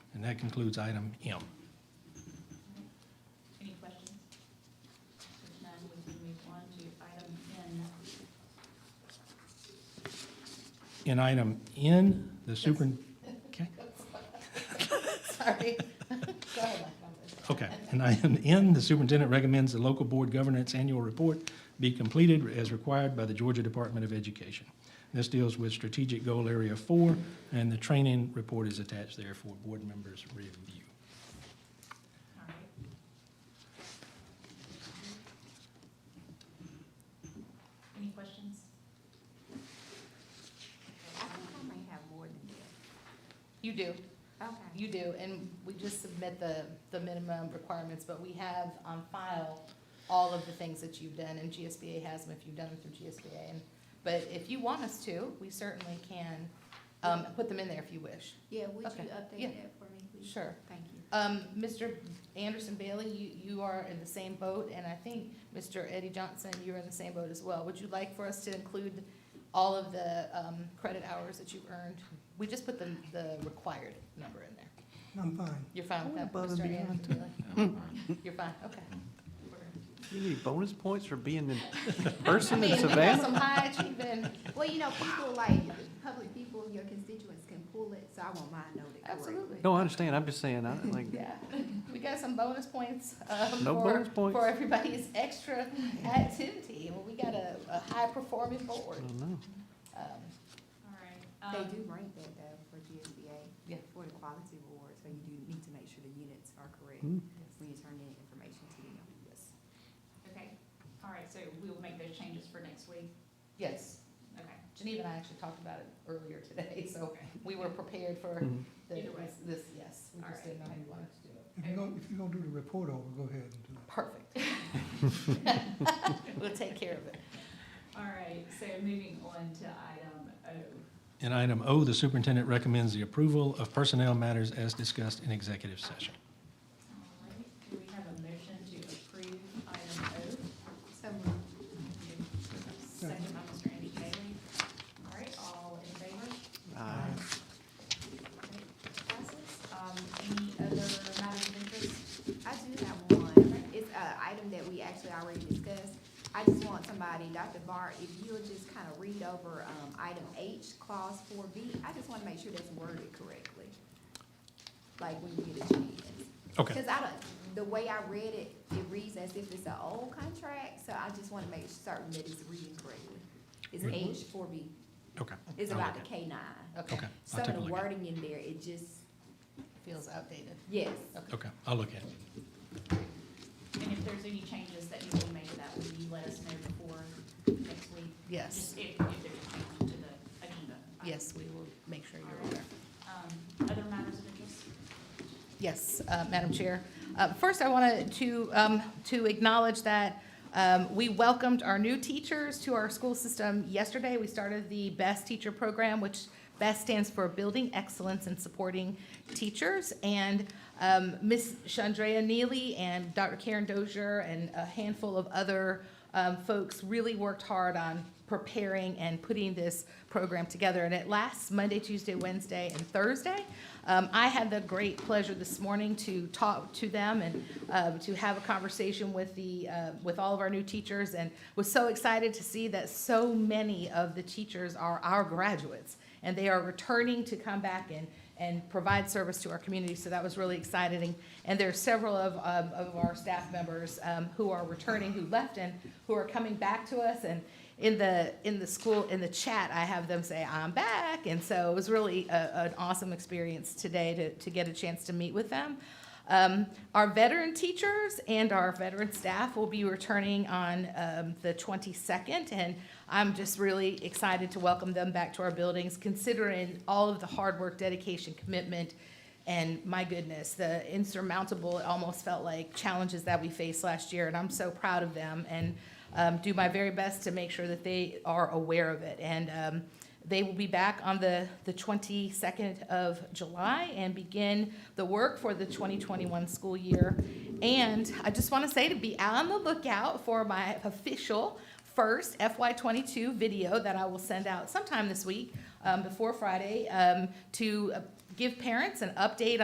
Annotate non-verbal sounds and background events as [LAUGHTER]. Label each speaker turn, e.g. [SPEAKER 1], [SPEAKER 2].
[SPEAKER 1] And that concludes item M.
[SPEAKER 2] Any questions? If none, we can move on to item N.
[SPEAKER 1] In item N, the super, okay,
[SPEAKER 3] [LAUGHS]
[SPEAKER 2] [LAUGHS] Sorry. Go ahead, Mike, I'm sorry.
[SPEAKER 1] okay. In item N, the superintendent recommends the local board governance annual report be completed as required by the Georgia Department of Education. This deals with strategic goal area four, and the training report is attached there for board members' review.
[SPEAKER 2] All right. Any questions?
[SPEAKER 3] I think I may have more than that.
[SPEAKER 4] You do,
[SPEAKER 3] Okay.
[SPEAKER 4] you do, and we just submit the, the minimum requirements, but we have on file all of the things that you've done, and GSBA has them if you've done them through GSBA. And But if you want us to, we certainly can, um, put them in there if you wish.
[SPEAKER 3] Yeah, would
[SPEAKER 4] Okay,
[SPEAKER 3] you
[SPEAKER 4] yeah.
[SPEAKER 3] update that for me, please?
[SPEAKER 4] Sure.
[SPEAKER 3] Thank you.
[SPEAKER 4] Um, Mr. Anderson Bailey, you, you are in the same boat, and I think Mr. Eddie Johnson, you're in the same boat as well. Would you like for us to include all of the, um, credit hours that you earned? We just put the, the required number in there.
[SPEAKER 5] I'm fine.
[SPEAKER 4] You're fine with
[SPEAKER 5] I
[SPEAKER 4] that,
[SPEAKER 5] wouldn't
[SPEAKER 4] Mr.
[SPEAKER 5] bother me
[SPEAKER 4] Anderson
[SPEAKER 5] either.
[SPEAKER 4] Bailey?
[SPEAKER 6] [LAUGHS]
[SPEAKER 4] You're fine, okay.
[SPEAKER 6] You need bonus points for being the
[SPEAKER 4] I
[SPEAKER 6] person
[SPEAKER 4] mean,
[SPEAKER 6] in
[SPEAKER 4] we got
[SPEAKER 6] Savannah?
[SPEAKER 4] some high achieving,
[SPEAKER 3] Well, you know, people like, public people, your constituents can pull it, so I want mine noted correctly.
[SPEAKER 4] absolutely.
[SPEAKER 6] No, I understand, I'm just saying, I, like,
[SPEAKER 4] Yeah, we got some bonus points, um,
[SPEAKER 6] No
[SPEAKER 4] for,
[SPEAKER 6] bonus points.
[SPEAKER 4] for everybody's extra activity. Well, we got a, a high performing
[SPEAKER 6] I
[SPEAKER 4] board.
[SPEAKER 6] don't know.
[SPEAKER 4] Um,
[SPEAKER 2] All right.
[SPEAKER 3] They
[SPEAKER 2] um,
[SPEAKER 3] do rank that though for GSBA.
[SPEAKER 4] Yeah.
[SPEAKER 3] For the quality reward, so you do need to make sure the units are correct
[SPEAKER 6] Hmm.
[SPEAKER 3] when you turn in information to them. Yes.
[SPEAKER 2] Okay, all right, so we will make those changes for next week.
[SPEAKER 4] Yes,
[SPEAKER 2] Okay,
[SPEAKER 4] Geneva and I actually talked about it earlier today, [LAUGHS] so
[SPEAKER 2] okay.
[SPEAKER 4] we were prepared for
[SPEAKER 6] Mhm.
[SPEAKER 4] the,
[SPEAKER 2] Either way.
[SPEAKER 4] this, this, yes. We
[SPEAKER 2] All
[SPEAKER 4] just
[SPEAKER 2] right.
[SPEAKER 4] didn't know how you wanted to do it.
[SPEAKER 5] If you're gonna, if you're gonna do the report over, go ahead and do it.
[SPEAKER 4] Perfect.
[SPEAKER 2] [LAUGHS]
[SPEAKER 4] [LAUGHS] We'll take care of it.
[SPEAKER 2] All right, so moving on to item O.
[SPEAKER 1] In item O, the superintendent recommends the approval of personnel matters as discussed in executive session.
[SPEAKER 2] All right, do we have a motion to approve item
[SPEAKER 3] So moved.
[SPEAKER 2] O? Second by Mr. Andrew Bailey. All right, all in favor?
[SPEAKER 6] Uh,
[SPEAKER 2] Um, any other matters of interest?
[SPEAKER 3] I do have one. It's an item that we actually already discussed. I just want somebody, Dr. Bart, if you'll just kind of read over, um, item H, clause four B. I just want to make sure that's worded correctly. Like when you get a chance.
[SPEAKER 1] Okay.
[SPEAKER 3] Because I don't, the way I read it, it reads as if it's an old contract, so I just want to make certain that it's reading correctly. It's
[SPEAKER 1] Mhm.
[SPEAKER 3] H four B.
[SPEAKER 1] Okay.
[SPEAKER 3] It's
[SPEAKER 1] I'll
[SPEAKER 3] about the
[SPEAKER 1] look
[SPEAKER 3] K nine.
[SPEAKER 4] Okay,
[SPEAKER 1] Okay,
[SPEAKER 3] Some
[SPEAKER 1] I'll
[SPEAKER 3] of
[SPEAKER 1] take a
[SPEAKER 3] the
[SPEAKER 1] look at it.
[SPEAKER 3] wording in there, it just,
[SPEAKER 4] feels outdated.
[SPEAKER 3] yes.
[SPEAKER 1] Okay, I'll look at it.
[SPEAKER 2] And if there's any changes that need to be made to that, will you let us know before next week?
[SPEAKER 4] Yes,
[SPEAKER 2] Just if, if there's a change to the agenda. item.
[SPEAKER 4] yes, we will make sure you're aware.
[SPEAKER 2] Um, other matters of interest?
[SPEAKER 4] Yes, uh, Madam Chair. Uh, First, I wanted to, um, to acknowledge that um, we welcomed our new teachers to our school system yesterday. We started the BEST Teacher Program, which BEST stands for Building Excellence and Supporting Teachers. And um, Ms. Chandrea Neely and Dr. Karen Dozier and a handful of other um, folks really worked hard on preparing and putting this program together. And it lasts Monday, Tuesday, Wednesday, and Thursday. Um, I had the great pleasure this morning to talk to them and um, to have a conversation with the uh, with all of our new teachers, and was so excited to see that so many of the teachers are our graduates, and they are returning to come back and and provide service to our community. So that was really exciting. And there are several of, um, of our staff members um, who are returning, who left, and who are coming back to us. And in the in the school in the chat, I have them say, "I'm back," and so it was really a, an awesome experience today to to get a chance to meet with them. Um, our veteran teachers and our veteran staff will be returning on um, the 22nd, and I'm just really excited to welcome them back to our buildings, considering all of the hard work, dedication, commitment, and my goodness, the insurmountable, it almost felt like challenges that we faced last year, and I'm so proud of them and um, do my very best to make sure that they are aware of it. And um, they will be back on the, the 22nd of July and begin the work for the 2021 school year. And I just want to say to be on the lookout for my official first FY22 video that I will send out sometime this week um, before Friday um, to uh, give parents an update